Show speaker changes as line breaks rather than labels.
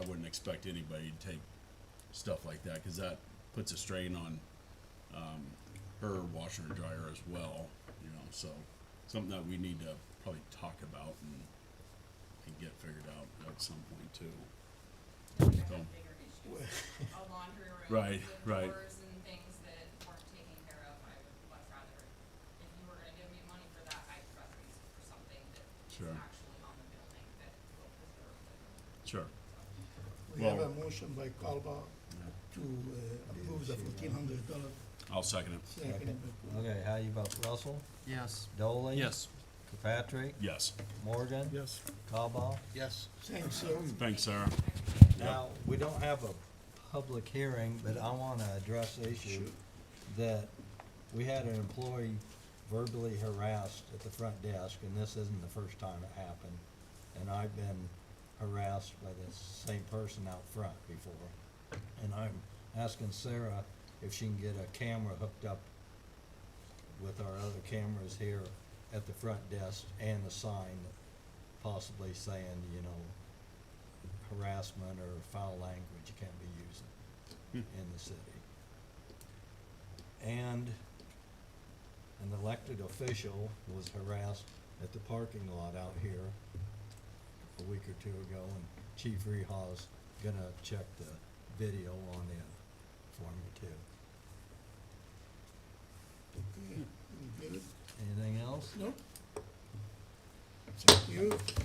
expect anybody to take stuff like that because that puts a strain on um, her washer and dryer as well. You know, so something that we need to probably talk about and and get figured out at some point too.
Bigger
So-
issues, a laundry room
Right,
with
right.
drawers and things that weren't taken care of, I would much rather, if you were gonna give me money for that, I'd rather use it for something that is
Sure.
actually on the building that will preserve the
Sure.
We have a
Well-
motion by Calba to uh, approve the fourteen hundred dollar,
I'll second it.
second by Paul.
Okay, how you vote? Russell?
Yes.
Doley? Kirkpatrick?
Yes.
Morgan?
Yes.
Cobal?
Yes.
Thanks, sir.
Thanks, Sarah.
Now, we don't have a public hearing, but I wanna address the issue that we had an employee verbally harassed at the front desk, and this isn't the first time it happened. And I've been harassed by the same person out front before. And I'm asking Sarah if she can get a camera hooked up with our other cameras here at the front desk and a sign possibly saying, you know, harassment or foul language you can't be using in the city. And an elected official was harassed at the parking lot out here a week or two ago, and Chief Reha's gonna check the video on it for me too.
Okay, you get it?
Anything else?
No? Thank you.